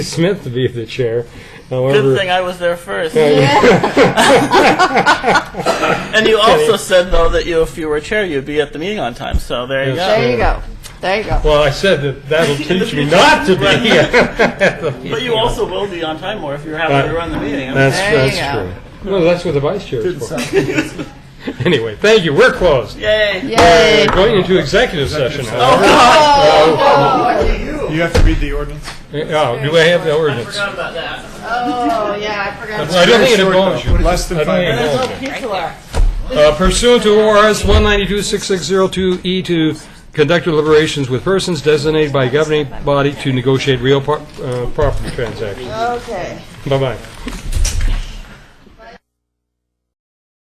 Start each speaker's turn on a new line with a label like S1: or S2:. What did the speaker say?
S1: Smith to be the chair.
S2: Good
S1: However,
S2: thing I was there first. and you also said though that you, if you were chair, you'd be at the meeting on time. So there you
S1: Yes.
S2: go.
S1: Yeah.
S3: There you go. There you go.
S1: well, I said that that'll teach me not to be.
S2: But you also will be on time more if you're happy to run the meeting. I mean,
S1: That's
S3: There you
S1: that's true. No, that's what the vice chair is for. anyway, thank you. We're closed.
S2: Yay!
S3: Yay.
S1: We're going into executive session.
S2: Oh,
S1: however.
S2: God,
S4: You have to read the ordinance.
S1: Yeah, do I have the
S2: I
S1: ordinance?
S2: forgot about that.
S3: Oh, yeah, I forgot.
S1: I don't think it involves you.
S4: Less than
S1: I don't
S4: five
S1: think it
S4: minutes.
S1: involves you.
S2: Pizza left.
S1: Uh, Pursuant to ORS 192-6602E E to conduct deliberations with persons designated by governing body to negotiate real pro- uh, property transactions.
S3: Okay.
S1: Bye-bye.